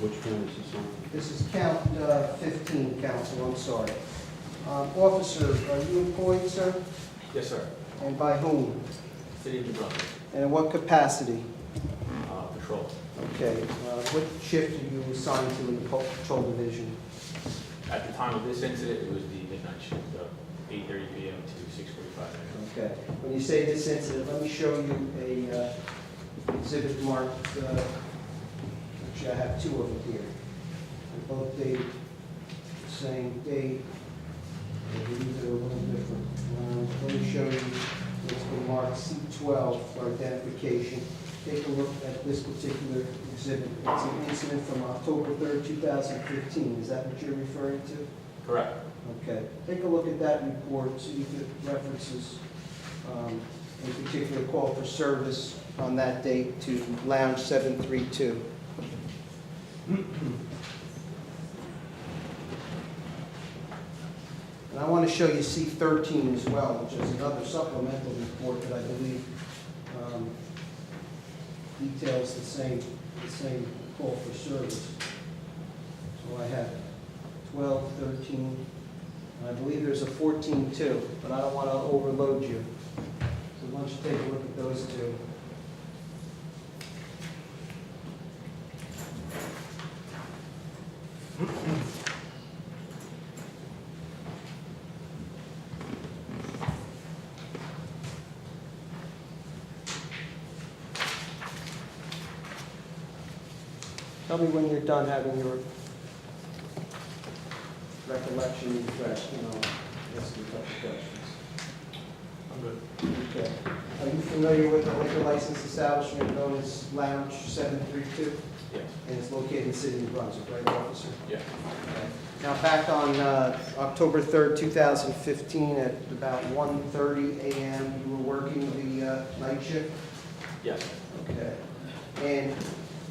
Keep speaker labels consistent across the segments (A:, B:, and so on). A: Which one is this on?
B: This is count uh, 15, counsel, I'm sorry. Um, Officer, are you employed, sir?
C: Yes, sir.
B: And by whom?
C: City of New Brunswick,
B: And in what capacity?
C: uh, patrol.
B: Okay, uh, what shift are you assigned to in the pa- patrol division?
C: At the time of this incident, it was the midnight shift of 8:30 PM to 6:45 AM.
B: Okay, when you say this incident, let me show you a uh, exhibit marked, uh, actually, I have two of them here. They're Both date, same date, I believe they're a little different. Um, Let me show you, it's been marked C12 for identification. Take a look at this particular exhibit. It's an incident from October 3rd, 2015. Is that what you're referring to?
C: Correct.
B: Okay, take a look at that report, see if it references, um, in particular, call for service on that date to Lounge 732. And I want to show you C13 as well, which is another supplemental report that I believe um, details the same, the same call for service. So I have 12, 13, and I believe there's a 14 too, but I don't want to overload you. So why don't you take a look at those two? Tell me when you're done having your recollection refreshed, and I'll ask you a couple questions.
C: I'm good.
B: Okay. Are you familiar with the liquor license establishment known as Lounge 732?
C: Yes,
B: And it's located in the city of New Brunswick, right, officer?
C: yes.
B: Now, back on uh, October 3rd, 2015, at about 1:30 a.m., you were working the uh, night shift?
C: Yes,
B: Okay. And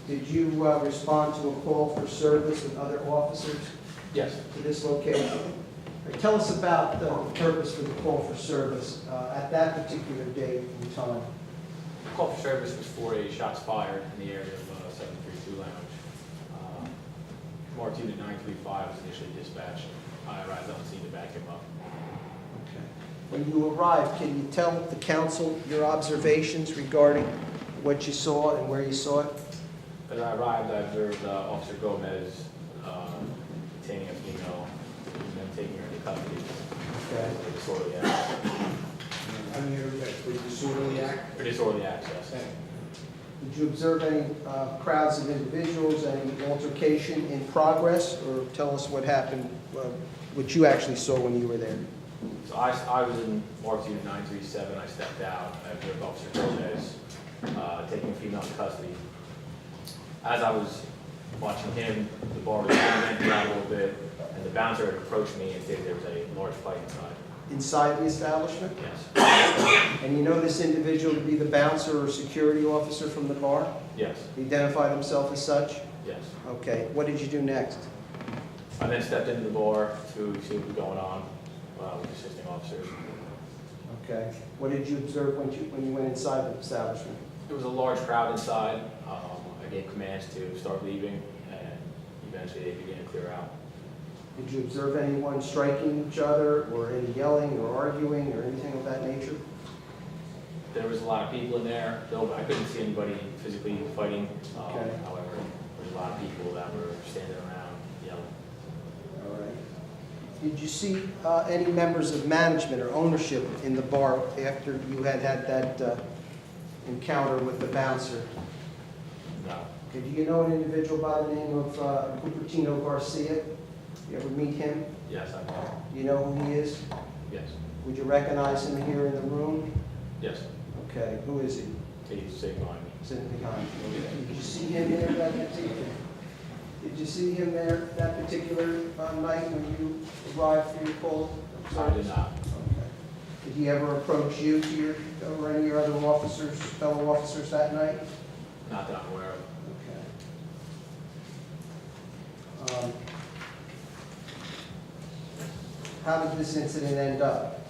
B: did you uh, respond to a call for service with other officers
C: yes.
B: to this location? All right, Tell us about uh, the purpose for the call for service uh, at that particular date and time.
C: The Call for service was for a shots fired in the area of uh, 732 Lounge. Uh, Marked unit 935 was initially dispatched. I arrived on scene to back him up.
B: Okay. When you arrived, can you tell the council your observations regarding what you saw and where you saw it?
C: As I arrived, I observed uh, Officer Gomez uh, detaining a female and then taking her into custody.
B: Okay.
C: For disorderly access.
D: I'm here for disorderly act.
C: For disorderly access.
B: Did you observe any uh, crowds of individuals, any altercation in progress? Or tell us what happened, uh, what you actually saw when you were there?
C: So I, I was in Mark's unit nine three seven, I stepped out, I observed Officer Gomez, uh, taking a female in custody. As I was watching him, the bar was empty out a little bit, and the bouncer had approached me and said there was a large fight inside.
B: Inside the establishment?
C: Yes,
B: And you know this individual to be the bouncer or security officer from the bar?
C: yes,
B: He Identified himself as such?
C: yes.
B: Okay, what did you do next?
C: I then stepped into the bar to see what was going on, uh, with assisting officers.
B: Okay, what did you observe when you, when you went inside the establishment?
C: There was a large crowd inside, um, I gave commands to start leaving, and eventually they began to clear out.
B: Did you observe anyone striking each other, or any yelling, or arguing, or anything of that nature?
C: There was a lot of people in there, though I couldn't see anybody physically fighting. Um,
B: Okay.
C: However, there was a lot of people that were standing around yelling.
B: All right. Did you see uh, any members of management or ownership in the bar after you had had that uh, encounter with the bouncer?
C: No,
B: Okay, Do you know an individual by the name of uh, Cupertino Garcia? You ever meet him?
C: yes, I know,
B: Do you know who he is?
C: yes,
B: Would you recognize him here in the room?
C: yes,
B: Okay, who is he?
C: he's sitting behind me.
B: Sitting behind you. Did you see him there that particular? Did you see him there that particular uh, night when you arrived for your call?
C: I did not,
B: Okay. Did he ever approach you to your, or any of your other officers, fellow officers that night?
C: not that I'm aware of.
B: Okay. Um, How did this incident end up?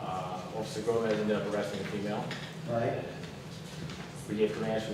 C: Uh, Officer Gomez ended up arresting a female.
B: Right.
C: We gave commands for